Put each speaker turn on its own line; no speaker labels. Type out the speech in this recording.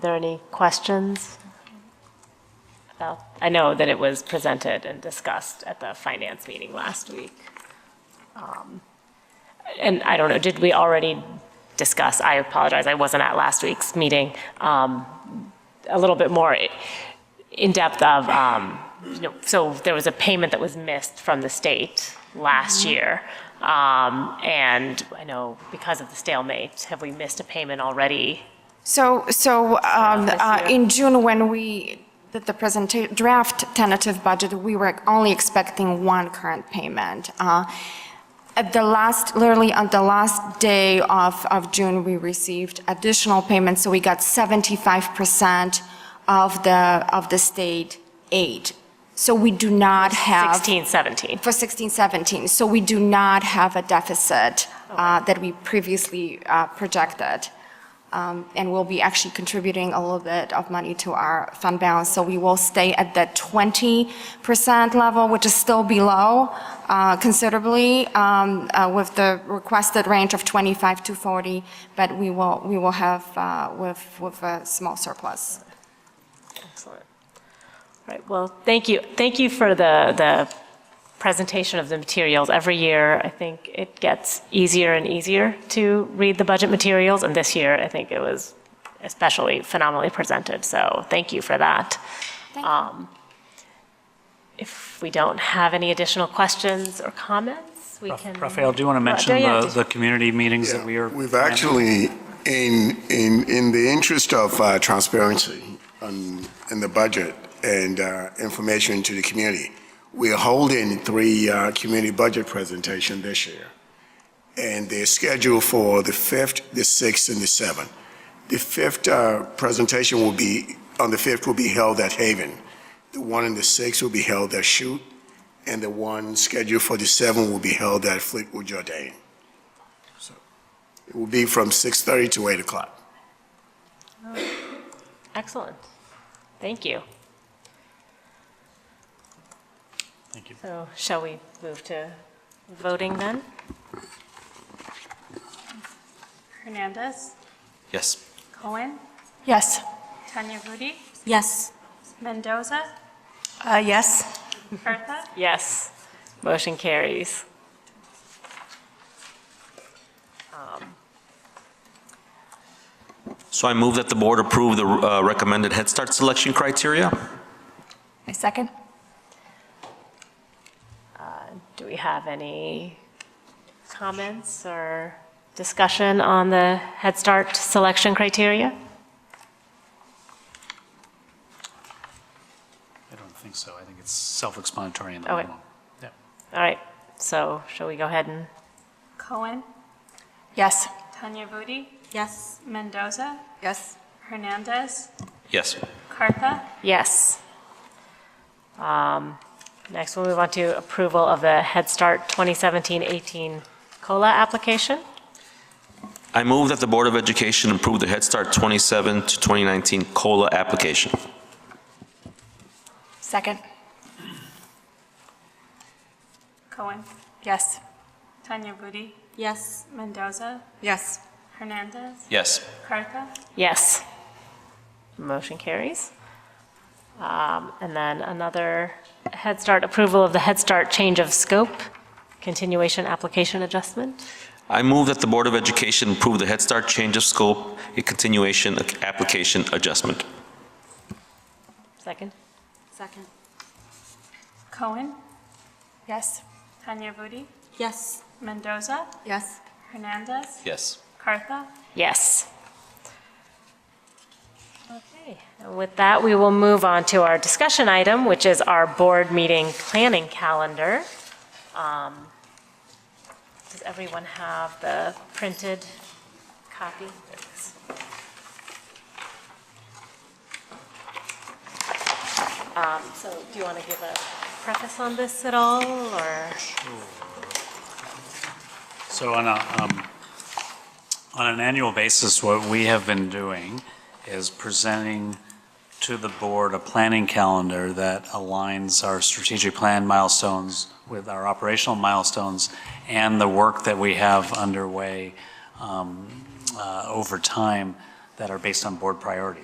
there any questions? about? I know that it was presented and discussed at the finance meeting last week. Um, And I don't know, did we already discuss, I apologize, I wasn't at last week's meeting, um, a little bit more in depth of, um, you know, so there was a payment that was missed from the state last year. Um, And I know because of the stalemate, have we missed a payment already?
So, so um,
this
uh,
year.
in June, when we did the presenta- draft tentative budget, we were only expecting one current payment. Uh, At the last, literally on the last day of, of June, we received additional payments, so we got 75% of the, of the state aid. So we do not have.
16, 17?
For 16, 17, so we do not have a deficit uh, that we previously uh, projected. Um, And we'll be actually contributing a little bit of money to our fund balance. So we will stay at that 20% level, which is still below uh, considerably um, uh, with the requested range of 25 to 40, but we will, we will have uh, with, with a small surplus.
Excellent. All right, well, thank you. Thank you for the, the presentation of the materials. Every year, I think it gets easier and easier to read the budget materials, and this year, I think it was especially phenomenally presented, so thank you for that.
Thank you.
Um, If we don't have any additional questions or comments, we can. Uh,
Rafael, do you want to mention
yeah,
the,
just-
the community meetings that we are?
We've
planning?
actually, in, in, in the interest of uh, transparency on, in the budget and uh, information to the community, we're holding three uh, community budget presentation this year. And they're scheduled for the 5th, the 6th, and the 7th. The 5th uh, presentation will be, on the 5th will be held at Haven. The one on the 6th will be held at Shoot, and the one scheduled for the 7th will be held at Fleetwood Jordan. It will be from 6:30 to 8 o'clock.
Excellent. Thank you.
Thank you.
So shall we move to voting then?
Hernandez,
Yes.
Cohen,
Yes.
Tanya Rudy,
Yes.
Mendoza,
Uh, yes.
Bertha,
Yes, motion carries.
So I move that the board approve the uh, recommended Head Start selection criteria.
I second.
Do we have any comments or discussion on the Head Start selection criteria?
I don't think so. I think it's self-explanatory in the
Okay.
memo. Yeah.
All right, so shall we go ahead and,
Cohen,
Yes.
Tanya Rudy,
Yes.
Mendoza,
Yes.
Hernandez,
Yes.
Cartha,
yes. Um, Next, we'll move on to approval of the Head Start 2017-18 COLA application.
I move that the Board of Education approve the Head Start 27 to 2019 COLA application.
Second.
Cohen,
Yes.
Tanya Rudy,
Yes.
Mendoza,
Yes.
Hernandez,
Yes.
Cartha,
Yes. Motion carries. Um, And then another Head Start approval of the Head Start change of scope, continuation application adjustment.
I move that the Board of Education approve the Head Start change of scope, a continuation application adjustment.
Second?
Second.
Cohen,
Yes.
Tanya Rudy,
Yes.
Mendoza,
Yes.
Hernandez,
Yes.
Cartha,
Yes. Okay, and with that, we will move on to our discussion item, which is our board meeting planning calendar. Um, Does everyone have the printed copy? Thanks. Um, So do you want to give a preface on this at all, or?
So on a, um, on an annual basis, what we have been doing is presenting to the board a planning calendar that aligns our strategic plan milestones with our operational milestones and the work that we have underway um, uh, over time that are based on board priorities.